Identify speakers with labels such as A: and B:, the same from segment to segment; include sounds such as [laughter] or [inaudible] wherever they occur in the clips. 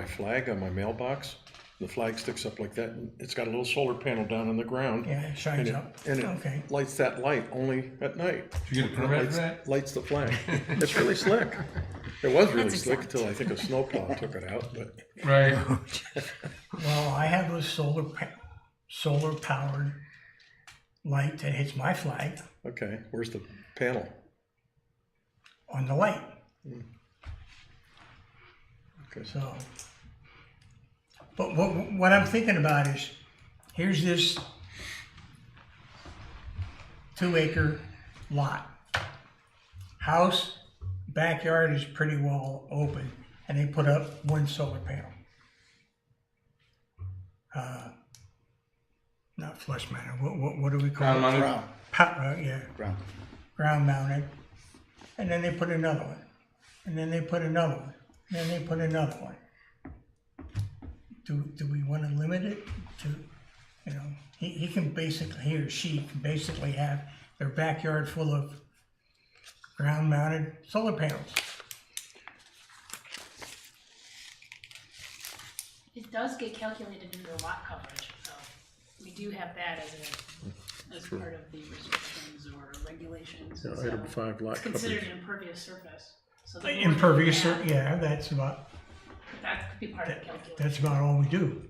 A: my flag on my mailbox. The flag sticks up like that. and It's got a little solar panel down on the ground.
B: Yeah, it
A: And
B: shines
A: it,
B: up.
A: and
B: Okay.
A: it lights that light only at night.
C: You get a permit for
A: Lights,
C: that?
A: lights the
D: [laughs]
A: flag. It's really slick. It was really
D: That's
A: slick
D: exact.
A: until I think a snowplow took it out, but
C: Right.
B: Well, I have a solar, pa- solar powered light that hits my flag
A: okay, where's the panel?
B: on the light,
A: Okay, so-
B: so. But what, what I'm thinking about is, here's this two acre lot. House, backyard is pretty well open, and they put up one solar panel. Uh, Not flush manor, what, what, what do we call it?
C: Ground mounted?
E: Brown,
B: Pa- uh, yeah,
E: brown.
B: ground mounted, and then they put another one, and then they put another one, and then they put another one. Do, do we wanna limit it to, you know, he, he can basically, he or she can basically have their backyard full of ground mounted solar panels.
D: It does get calculated into the lot coverage, so we do have that as a, as part of the restrictions or regulations.
A: yeah,
D: so
A: item five lot
D: It's considered
A: coverage.
D: an impervious surface. so the more
B: Impervious,
D: you
B: sur-
D: add,
B: yeah, that's about,
D: That could be part of the calculation.
B: that's about all we do.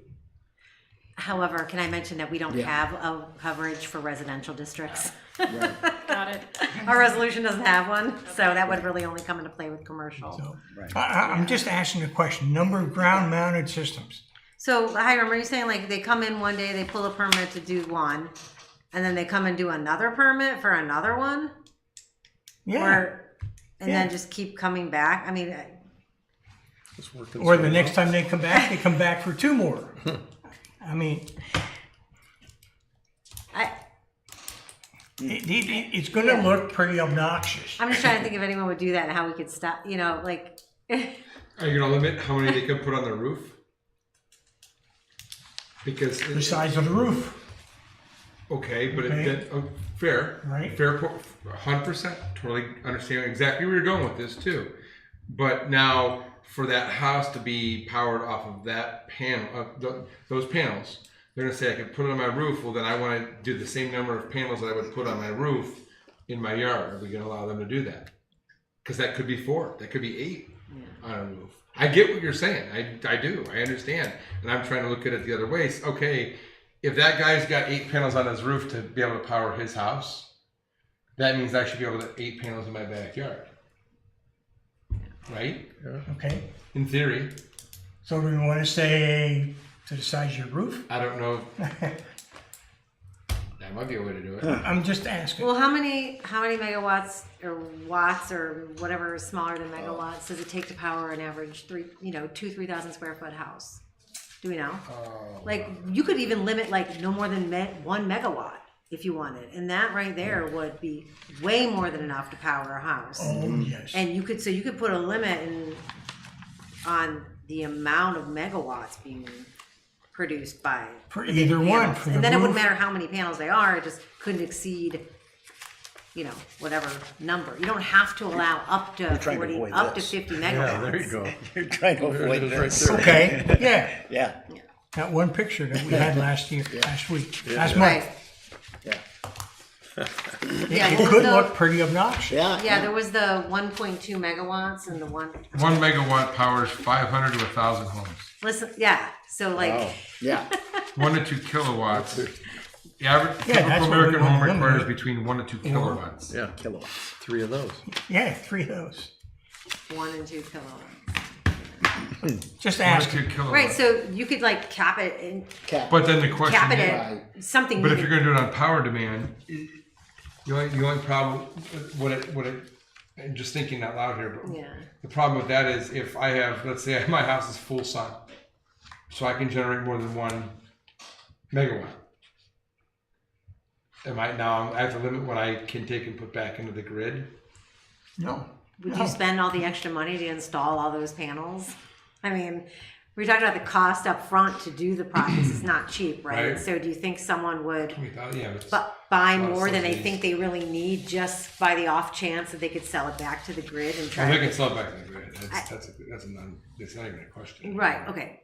F: However, can I mention that we don't
E: Yeah.
F: have a coverage for residential districts?
E: Right,
D: Got it.
F: [laughs] Our resolution doesn't have one, so that would really only come into play with commercial.
B: So,
E: Right.
B: I, I, I'm just asking a question, number of ground mounted systems.
F: So Hiram, are you saying like they come in one day, they pull a permit to do one, and then they come and do another permit for another one?
B: Yeah,
F: Or, and then
B: Yeah.
F: just keep coming back? I mean,
A: It's working
B: or the
A: so
B: next
A: well.
B: time they come back, they come back for two [laughs] more. I mean,
F: I,
B: It, it, it- it's going to look pretty obnoxious.
F: I'm just trying to think if anyone would do that and how we could stop, you know, like,
C: Are you gonna limit how many they could put on the roof? Because it-
B: The size of the roof.
C: okay, but
B: Okay.
C: it, that, oh, fair,
B: Right.
C: Fair, hundred percent. Totally understand exactly where you're going with this too. But now for that house to be powered off of that panel, of th those panels, they're gonna say I could put it on my roof. Well, then I want to do the same number of panels that I would put on my roof in my yard. Are we gonna allow them to do that? Because that could be four. That could be eight. on a roof. I get what you're saying. I, I do. I understand. And I'm trying to look at it the other way. It's, Okay, if that guy's got eight panels on his roof to be able to power his house, that means I should be able to eight panels in my backyard. Right?
B: Okay.
C: In theory.
B: So do we want to say to the size of your roof? [laughs]
C: I don't know. that might be a way to do it.
B: I'm just asking.
F: well, how many, how many megawatts or watts or whatever is smaller than megawatts does it take to power an average three, you know, two, three thousand square foot house? Do we know?
C: Oh,
F: Like, you could even limit like no more than me- one megawatt if you wanted, and that right there would be way more than enough to power a house.
B: oh, yes.
F: And you could, so you could put a limit in, on the amount of megawatts being produced by.
B: For either one.
F: panels.
B: For the
F: And then it
B: roof,
F: wouldn't matter how many panels they are, it just couldn't exceed, you know, whatever number. You don't have to allow up to
E: trying to
F: forty,
E: avoid
F: up to
E: this.
F: fifty
A: Yeah, there you
F: megawatts.
A: go.
E: You're trying to
A: There
E: avoid
A: it is right
E: this.
A: there.
B: Okay. Yeah.
E: Yeah,
B: That one picture that we had last [laughs] year, last week, last
F: Right,
B: month.
E: yeah,
F: yeah,
B: It
F: well,
B: could
F: the-
B: look pretty obnoxious.
E: yeah.
F: yeah, there was the one point two megawatts and the one,
C: [laughs] One megawatt powers 500 to 1,000 homes.
F: listen, yeah, so like,
E: Yeah,
C: One to two [laughs] kilowatts. The average
B: Yeah, that's what we
C: typical American
B: want
C: home
B: to
C: requires
B: limit.
C: between one to two kilowatts.
A: Yeah,
E: kilowatts.
A: three of those.
B: Yeah, three of those.
F: one and two kilowatts.
B: Just
C: One to
B: asking.
C: two kilowatts.
F: Right, so you could like cap it and
E: Cap.
C: But then the question
F: cap it
C: is-
F: at something.
C: But
F: you
C: if you're
F: could-
C: going to do it on power demand, i- the only, the only problem, what it, what it, I'm just thinking out loud here, but
F: Yeah.
C: the problem with that is if I have, let's say [laughs] my house is full sun, so I can generate more than one megawatt. Am I now, I have to limit what I can take and put back into the grid?
B: No.
F: Would
B: No.
C: Oh.
F: you spend all the extra money to install all those panels? I mean, we were talking about the cost up front to do the process. It's not cheap, right?
C: Right.
F: So do you think someone would
C: We thought, uh, yeah, it's,
F: bu- buy
C: Lot of
F: more than they
C: subsidies.
F: think they really need just by the off chance that they could sell it back to the grid and
C: well,
F: try?
C: they can sell it back to the grid. That's, that's, a, that's a non, that's not even a question.
F: Right, okay.